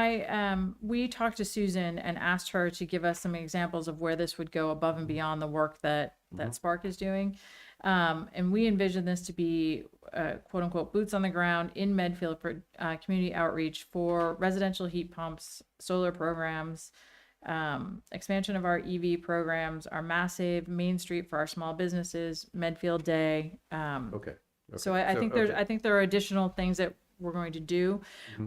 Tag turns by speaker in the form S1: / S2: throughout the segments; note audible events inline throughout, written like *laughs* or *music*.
S1: I, um, we talked to Susan and asked her to give us some examples of where this would go above and beyond the work that, that Spark is doing. Um, and we envision this to be, uh, quote unquote, boots on the ground in Medfield for, uh, community outreach for residential heat pumps, solar programs, um, expansion of our EV programs, our massive Main Street for our small businesses, Medfield Day, um,
S2: Okay.
S1: so I, I think there's, I think there are additional things that we're going to do.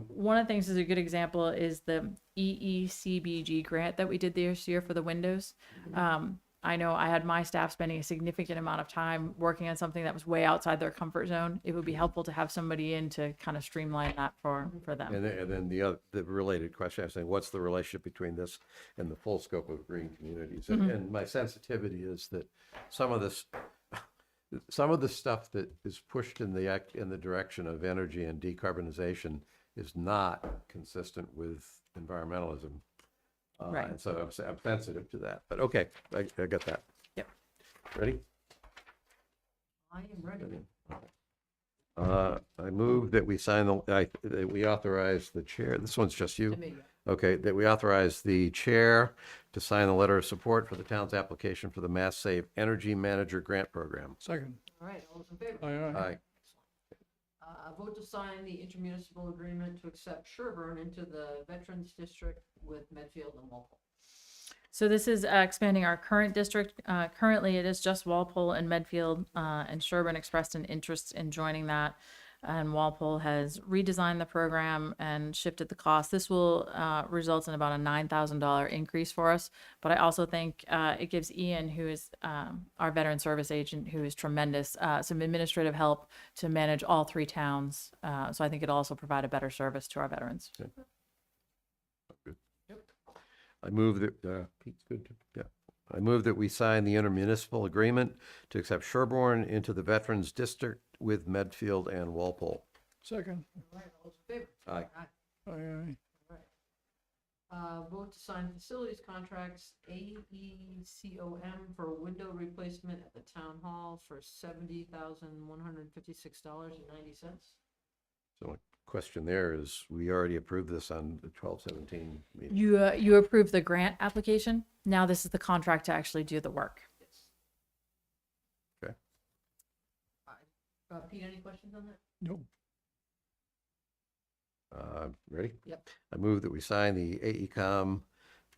S1: One of the things is a good example is the E EECBG grant that we did this year for the windows. Um, I know I had my staff spending a significant amount of time working on something that was way outside their comfort zone. It would be helpful to have somebody in to kind of streamline that for, for them.
S2: And then, and then the other, the related question, I was saying, what's the relationship between this and the full scope of green communities?
S1: Mm-hmm.
S2: And, and my sensitivity is that some of this, some of the stuff that is pushed in the act, in the direction of energy and decarbonization is not consistent with environmentalism. Uh,
S1: Right.
S2: And so I'm, s- I'm sensitive to that, but okay, I, I got that.
S1: Yep.
S2: Ready?
S3: I am ready.
S2: Uh, I move that we sign the, I, that we authorize the chair, this one's just you. Okay, that we authorize the chair to sign the letter of support for the town's application for the Mass Save Energy Manager Grant Program.
S4: Second.
S3: All right, all those in favor?
S4: Aye, aye.
S2: Aye.
S3: Uh, a vote to sign the intermunicipal agreement to accept Sherburne into the Veterans District with Medfield and Walpole.
S1: So this is uh, expanding our current district. Uh, Currently, it is just Walpole and Medfield, uh, and Sherburne expressed an interest in joining that. And Walpole has redesigned the program and shifted the cost. This will uh, result in about a $9,000 increase for us. But I also think uh, it gives Ian, who is um, our veteran service agent, who is tremendous, uh, some administrative help to manage all three towns. Uh, So I think it'll also provide a better service to our veterans.
S2: I move that, uh, Pete's good, to- yeah. I move that we sign the intermunicipal agreement to accept Sherborne into the Veterans District with Medfield and Walpole.
S4: Second.
S3: All right, all those in favor?
S2: Aye.
S4: Aye, aye.
S3: All right. Uh, vote to sign facilities contracts E AECOM for window replacement at the town hall for seventy thousand one hundred fifty-six dollars and ninety cents.
S2: So my question there is, we already approved this on the twelve seventeen meeting.
S1: You, uh, you approved the grant application. Now this is the contract to actually do the work.
S3: Yes.
S2: Okay.
S3: All right. Uh, Pete, any questions on that?
S4: Nope.
S2: Uh, ready?
S3: Yep.
S2: I move that we sign the AECom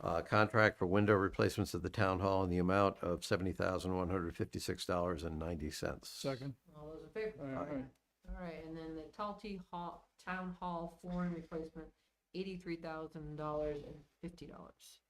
S2: uh, contract for window replacements at the town hall in the amount of $70,156.90.
S4: Second.
S3: All those in favor?
S4: Aye, aye.
S3: All right, and then the Talty Hall, Town Hall flooring replacement, eighty-three thousand dollars and fifty dollars.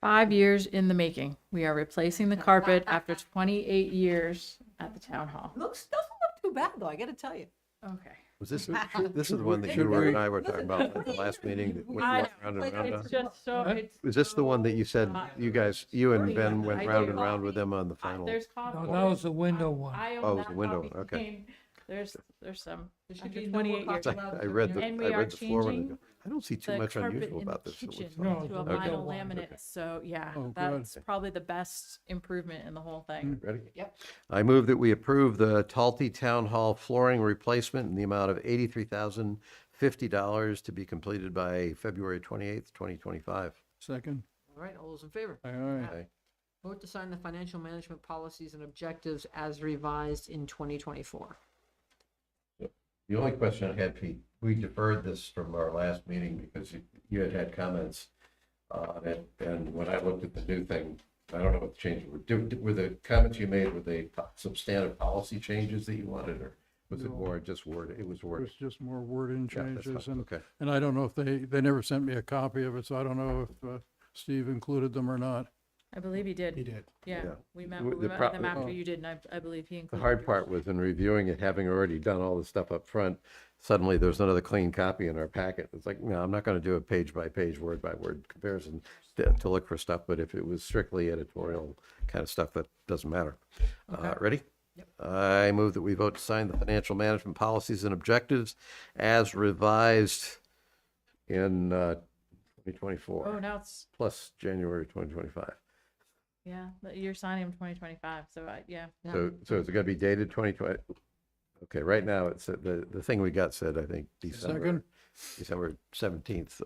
S1: Five years in the making. We are replacing the carpet after 28 years at the town hall.
S3: Looks, doesn't look too bad though, I gotta tell you.
S1: Okay. *laughs*
S2: Was this, this is the one that you
S4: Should
S2: were
S4: we-
S2: and I were talking about at the last meeting that went
S1: I
S2: round and
S1: know, like,
S2: round
S1: it's
S2: on?
S1: just so,
S4: Huh?
S1: it's.
S2: Was this the one that you said, you guys, you and Ben went
S1: I
S2: round
S1: do.
S2: and round with them on the
S1: I-
S2: final?
S1: There's copies.
S4: No, that was the window one.
S1: I own
S2: Oh, it was
S1: that
S2: the window,
S1: copy.
S2: okay.
S1: There's, there's some.
S3: There should
S1: After
S3: be no more
S1: 28 years.
S2: It's like, *laughs* I read the,
S1: And we
S2: I
S1: are
S2: read the floor one. and
S1: changing
S2: go, I don't see too
S1: the
S2: much
S1: carpet
S2: unusual
S1: in the
S2: about this. It looks
S1: kitchen
S2: fine."
S4: No,
S1: To a
S4: okay.
S1: vinyl
S4: Okay.
S1: laminate, so yeah,
S4: Oh, good. Mm.
S1: that's probably the best improvement in the whole thing.
S2: Ready?
S3: Yep.
S2: I move that we approve the Talty Town Hall flooring replacement in the amount of eighty-three thousand fifty dollars to be completed by February twenty-eighth, twenty twenty-five.
S4: Second.
S3: All right, all those in favor?
S4: Aye, aye.
S2: Okay.
S3: Vote to sign the financial management policies and objectives as revised in twenty twenty-four.
S2: The only question I had, Pete, we deferred this from our last meeting because you- you had had comments on it. And when I looked at the new thing, I don't know what the changes were. Do- Were the comments you made, were they substantive policy changes that you wanted or was it
S4: No.
S2: more just word, it was word?
S4: There's just more wording
S2: Yeah, that's
S4: changes
S2: fine.
S4: and,
S2: Okay,
S4: and I don't know if they, they never sent me a copy of it, so I don't know if uh, Steve included them or not.
S1: I believe he did.
S4: did.
S1: Yeah,
S2: Yeah.
S1: we met,
S2: W-
S1: we
S2: the
S1: met
S2: pro-
S1: with him after
S4: oh.
S1: you did, and I, I believe he included.
S2: The hard
S1: yours.
S2: part was in reviewing it, having already done all the stuff up front, suddenly there's another clean copy in our packet. It's like, no, I'm not going to do a page by page, word by word comparison to to look for stuff, but if it was strictly editorial kind of stuff, that doesn't matter. Uh, Ready? I move that we vote to sign the financial management policies and objectives as revised in uh,
S1: Oh,
S2: 2024,
S1: now it's,
S2: plus January 2025.
S1: yeah, but you're signing him twenty twenty-five, so I, yeah.
S3: Yeah.
S2: So, so it's gonna be dated twenty twenty, okay, right now, it's, the, the thing we got said, I think, December,
S4: Second.
S2: December seventeenth